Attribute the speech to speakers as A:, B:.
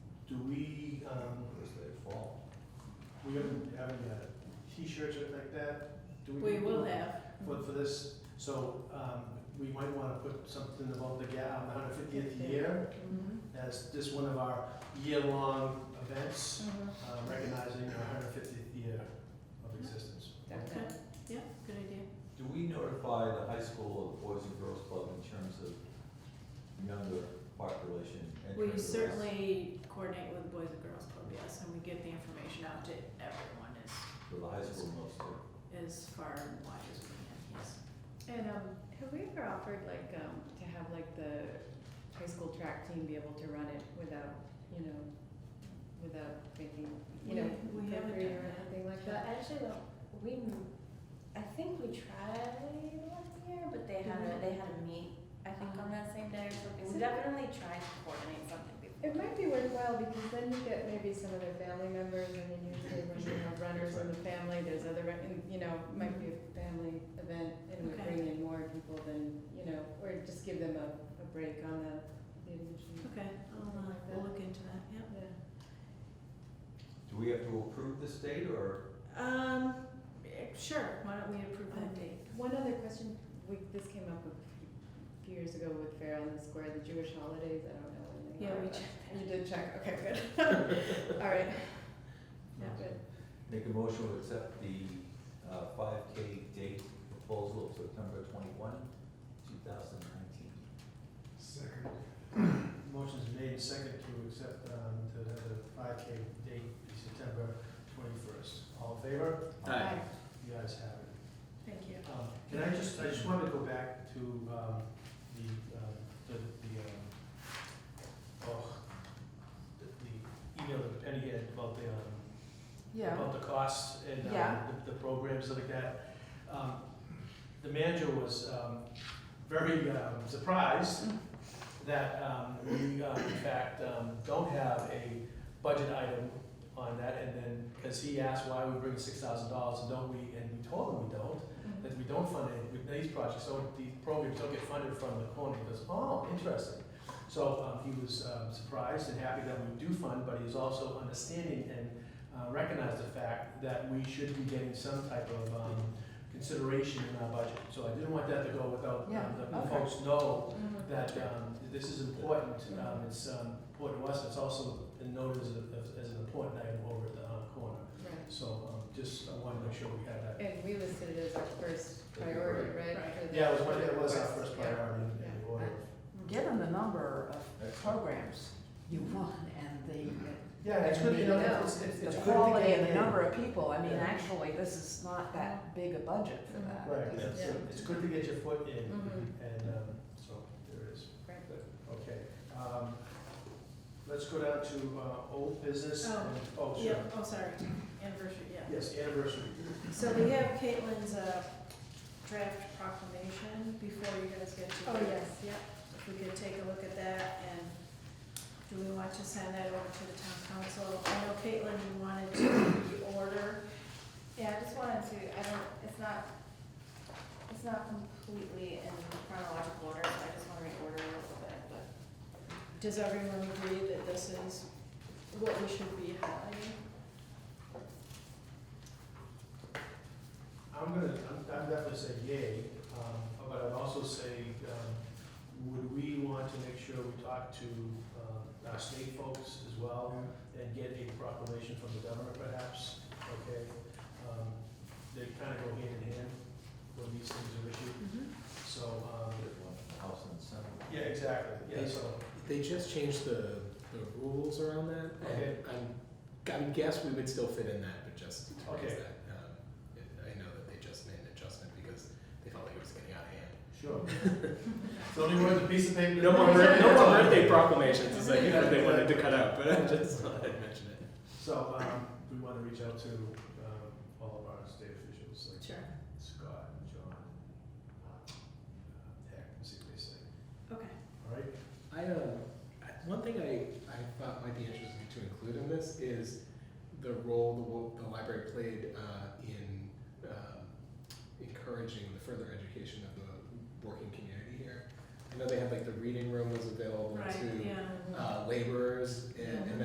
A: um,
B: Unless they fall.
A: we haven't, haven't had t-shirts or like that. Do
C: We will have.
A: For, for this, so, um, we might wanna put something about the ga, um, hundred fiftieth year
C: Mhm.
A: as just one of our year-long events,
C: Mhm.
A: um, recognizing our hundred fiftieth year of existence.
C: Okay, yeah, good idea.
B: Do we notify the high school or the Boys and Girls Club in terms of younger population entering
C: We
B: the race?
C: certainly coordinate with Boys and Girls Club, yes, and we get the information out to everyone as,
B: For the high school mostly.
C: as far and wide as we can, yes.
D: And um, have we ever offered like um, to have like the high school track team be able to run it without, you know, without making, you know,
C: We- we haven't
D: appropriate
C: done
D: or
C: that.
D: anything like
E: But
D: that?
E: actually, well, we, m- I think we tried last year, but
D: Mm-hmm.
E: they had
C: Mm-hmm.
E: a, they had a meet, I think on that same day or something. We definitely tried to coordinate something
D: It
E: before.
D: might be worthwhile because then you get maybe some of their family members and then usually when you have runners in the family, there's other, run- and, you know, might be a family event and we
C: Okay.
D: bring in more people than, you know, or just give them a, a break on the, the admission.
C: Okay, I'll, uh, we'll look into that, yeah.
D: Yeah.
B: Do we have to approve this date or?
C: Um, eh, sure, why don't we approve that date?
D: Um, One other question, we, this came up a few years ago with Farrell and the Square, the Jewish holidays, I don't know when they
C: Yeah,
D: are.
C: we
D: but-
C: checked that.
D: You did check, okay, good. All right,
C: Yeah.
D: good.
B: Make a motion to accept the uh, five K date proposal of September twenty-one, two thousand nineteen.
A: Second. Motion's made second to accept, um, to have the five K date be September twenty-first. All in favor?
D: Aye.
A: You guys have it.
C: Thank you.
A: Um, Can I just, I just wanted to go back to um, the, um, the, the, um, oh, the the email that Penny had about the, um, about the costs and um,
D: Yeah.
A: the the programs like that. Um, The manager was um, very um, surprised that um, we, uh, in fact, um, don't have a budget item on that. And then, because he asked why we bring six thousand dollars and don't we, and we told him we don't that we don't fund it, with these projects, so these programs don't get funded from the corner, he goes, oh, interesting. So, um, he was, um, surprised and happy that we do fund, but he's also understanding and, uh, recognized the fact that we should be getting some type of, um, consideration in our budget. So I didn't want that to go without, um,
D: Yeah,
A: the- the
D: okay.
A: folks know
D: Mhm.
A: that, um, this is important, um, it's, um, important to us, it's also been noted as a, as an important item over at the, um, corner.
D: Right,
A: So, um, just, I wanted to make sure we had that
D: and we listed it as our first priority, right?
C: Right.
D: for the-
A: yeah, it was, one- it was our
D: Yeah.
A: first priority in the order. of-
F: Given the number of programs you want and
A: Yeah, it's good, you know, it's, it's,
F: the,
A: it's
F: the
A: good to
F: quality
A: get
F: and the
A: in.
F: number of people, I mean,
A: Yeah.
F: actually, this is not that big a budget for that.
A: Right,
F: This is-
A: it's,
D: Yeah.
A: it's good to get your foot in,
D: Mhm.
A: and, um, so, there it is.
D: Right.
A: Good, Okay, um, let's go down to, uh, old business,
C: Oh,
A: and, oh, sure,
C: Yeah, oh, sorry, anniversary, yeah.
A: yes, anniversary.
C: So we have Caitlin's, uh, draft proclamation before you guys get to.
D: Oh,
C: the-
D: yes, yeah.
C: If we could take a look at that and do we want to send that over to the town council? I know Caitlin, you wanted to reorder.
E: Yeah, I just wanted to, I don't, it's not, it's not completely in chronological order, so I just wanna reorder it a little bit, but.
C: Does everyone agree that this is what we should be highlighting?
A: I'm gonna, I'm, I'm definitely say yay, um, but I'd also say, um, would we want to make sure we talk to, um, our state folks as well? and get a proclamation from the governor perhaps, okay? Um, They kind of go hand in hand when these things are issued, so, um,
B: House and Senate.
A: yeah, exactly, yeah, so,
G: They just changed the, the rules around that.
A: Okay.
G: And I'm, I would guess we would still fit in that, but just to raise
A: Okay.
G: that. Um, I I know that they just made an adjustment because they felt like it was getting out of hand.
A: sure. So do you want the piece of paper?
G: No more,
A: birthday.
G: no more birthday proclamations is like, you know, they wanted to cut out, but I just thought I'd mention it.
A: So, um, we want to reach out to, um, all of our state officials, like
C: Sure.
A: Scott and John, uh, Heck, and see what they say,
C: Okay.
A: all right?
G: I, um, I- one thing I, I thought might be interesting to include in this is the role the, wo- the library played uh, in um, encouraging the further education of the working community here. I know they had like the reading room was available
C: Right,
G: to
C: yeah.
G: uh, laborers and, and